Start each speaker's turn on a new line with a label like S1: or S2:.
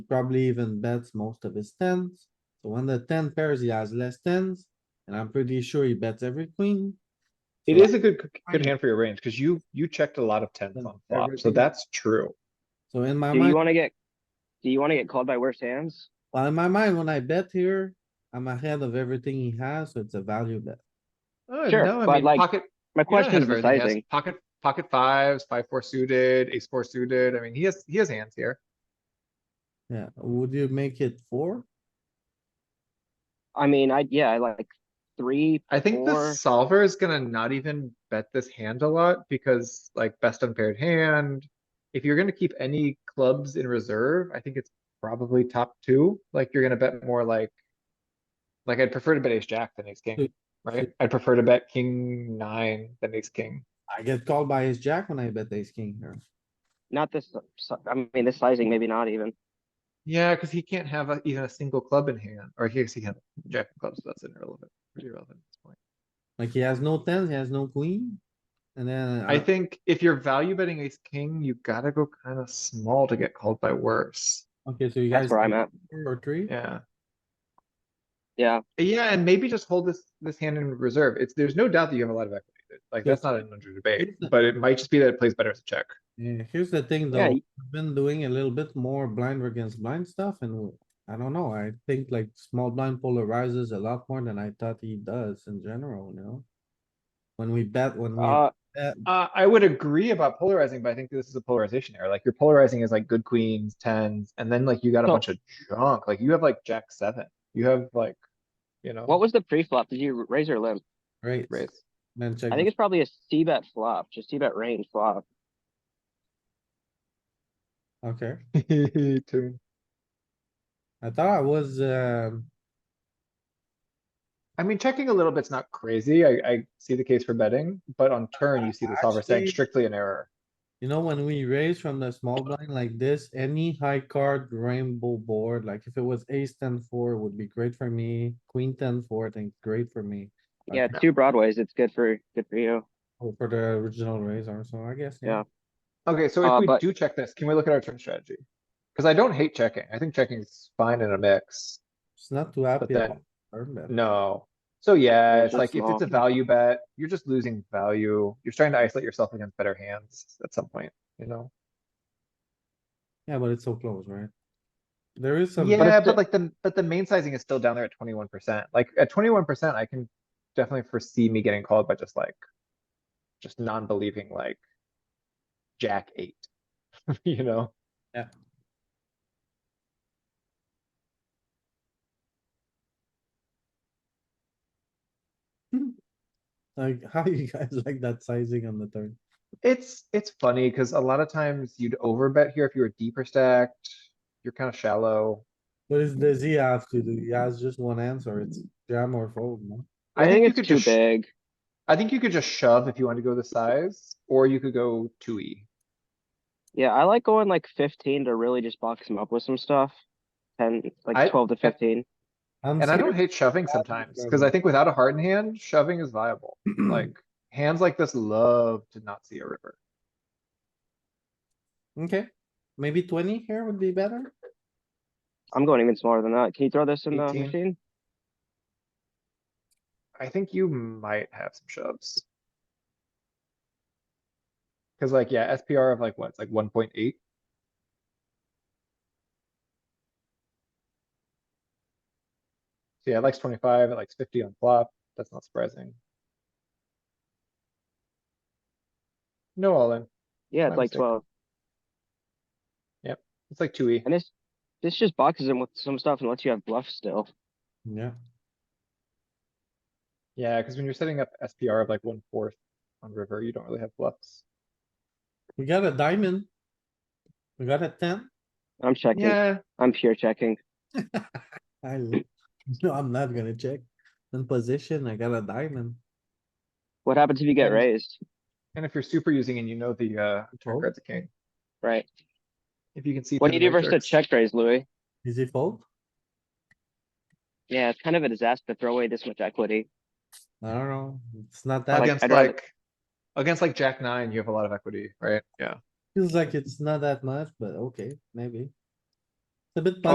S1: probably even bets most of his tens. So when the ten pairs, he has less tens, and I'm pretty sure he bets every queen.
S2: It
S1: So
S2: is a good, c- good
S1: Fine.
S2: hand for your range, cause you, you checked a lot of tens
S1: Then
S2: on flop, so
S1: everything-
S2: that's true.
S1: So in my
S3: Do you
S1: mind,
S3: wanna get, do you wanna get called by worse hands?
S1: well, in my mind, when I bet here, I'm ahead of everything he has, so it's a value bet.
S2: Uh,
S3: Sure,
S2: no, I
S3: but
S2: mean,
S3: like,
S2: Pocket,
S3: My
S2: you're not
S3: question
S2: ahead of
S3: is the
S2: everything. He has
S3: sizing.
S2: Pocket, pocket fives, five, four suited, ace four suited. I mean, he has, he has hands here.
S1: Yeah, would you make it four?
S3: I mean, I, yeah, I like three,
S2: I think the
S3: four.
S2: solver is gonna not even bet this hand a lot because like best unpaired hand. If you're gonna keep any clubs in reserve, I think it's probably top two. Like you're gonna bet more like. Like I'd prefer to bet ace jack than ace
S1: Hmm.
S2: king, right? I'd prefer to bet king nine than ace king.
S1: I get called by his jack when I bet ace king here.
S3: Not this, si- I mean, this sizing, maybe not even.
S2: Yeah, cuz he can't have a- even a single club in hand, or here's he can, have jack of clubs, so that's irrelevant, pretty irrelevant at this point.
S1: Like he has no tens, he has no queen. And then uh,
S2: I
S1: I,
S2: think if you're value betting ace king, you gotta go kinda small to get called by worse.
S1: okay, so you guys.
S3: That's where I'm at.
S1: Four or three?
S2: Yeah,
S3: Yeah,
S2: yeah, and maybe just hold this, this hand in reserve. It's, there's no doubt that you have a lot of equity. Like,
S1: Yeah.
S2: that's not an under debate,
S1: It's not-
S2: but it might just be that it plays better as a check.
S1: Yeah, here's the thing though,
S3: Yeah,
S1: we
S3: y-
S1: have been doing a little bit more blind against blind stuff and I don't know, I think like small blind polarizes a lot more than I thought he does in general, you know? When we bet, when we
S3: uh,
S1: bet,
S2: Uh, I would agree about polarizing, but I think this is a polarization error. Like, your polarizing is like good queens, tens, and then like you got a
S3: No.
S2: bunch of junk. Like, you have like jack seven. You have like, you know,
S3: what was the pre-flop? Did you raise or limp?
S1: right,
S2: raise.
S1: then check.
S3: I think it's probably a C bet flop, just C bet range flop.
S1: the- Okay,
S2: Two.
S1: I thought I was, um,
S2: I mean, checking a little bit's not crazy. I, I see the case for betting, but on turn, you see the solver saying
S1: Actually-
S2: strictly an error.
S1: you know, when we raise from the small blind like this, any high card rainbow board, like if it was ace ten four would be great for me. Queen ten four, I think great for me. Like,
S3: Yeah, two broadways, it's good for, good for you.
S1: oh, For the original raiser, so I guess, yeah.
S3: Yeah.
S2: Okay, so
S3: Uh,
S2: if we
S3: but-
S2: do check this, can we look at our turn strategy? Cuz I don't hate checking. I think checking is fine in a mix.
S1: It's not too happy
S2: then-
S1: about turn bet.
S2: No. So yeah, it's
S3: just
S2: like if it's a
S3: small.
S2: value bet, you're just losing value. You're trying to isolate yourself against better hands at some point, you know?
S1: Yeah, but it's so close, right? There is some,
S2: Yeah,
S3: it's
S2: but
S3: the-
S2: like the, but the main sizing is still down there at twenty-one percent. Like at twenty-one percent, I can definitely foresee me getting called by just like, just non-believing like jack eight, you know?
S1: Yeah. like, how you guys like that sizing on the turn?
S2: It's, it's funny because a lot of times you'd overbet here if you were deeper stacked. You're kind of shallow.
S1: What is, does he have to do? He has just one answer. It's jam or fold, no?
S3: I think
S2: you
S3: it's
S2: could
S3: too
S2: just-
S3: big.
S2: I think you could just shove if you want to go the size, or you could go two E.
S3: Yeah, I like going like fifteen to really just box him up with some stuff. Ten,
S2: I-
S3: like twelve to fifteen.
S1: I'm
S2: And I don't
S1: serious.
S2: hate shoving
S1: I think
S2: sometimes, because
S1: shoving.
S2: I think without a hard hand, shoving is viable. Like, hands like this love to not see a river.
S1: Okay, maybe twenty here would be better.
S3: I'm going even smaller than that. Can you throw this in the
S2: 18.
S3: machine?
S2: I think you might have some shoves. Cause like, yeah, SPR of like what? It's like one point eight. So yeah, it likes twenty-five, it likes fifty on flop. That's not surprising. No all in.
S3: Yeah,
S2: My
S3: it's like
S2: mistake.
S3: twelve.
S2: It's like two E.
S3: And this, this just boxes him with some stuff and lets you have bluff still.
S1: Yeah,
S2: Yeah, cuz when you're setting up SPR of like one fourth on river, you don't really have bluffs.
S1: we got a diamond. We got a ten.
S3: I'm checking.
S2: Yeah,
S3: I'm pure checking.
S1: I, l- no, I'm not gonna check. In position, I got a diamond.
S3: What happens if you get
S2: And-
S3: raised?
S2: and if you're super using and you know the, uh, turn
S1: Fold.
S2: grad's a king.
S3: Right?
S2: If you can see.
S3: What do
S2: through
S3: you
S2: the
S3: do versus a
S2: matrix.
S3: check raise, Louis?
S1: Is he fold?
S3: Yeah, it's kind of a disaster to throw away this much equity.
S1: I don't know. It's not that.
S2: Against
S3: I'd rather-
S2: like, against like jack nine, you have a lot of equity, right? Yeah.
S1: Feels like it's not that much, but okay, maybe. a bit.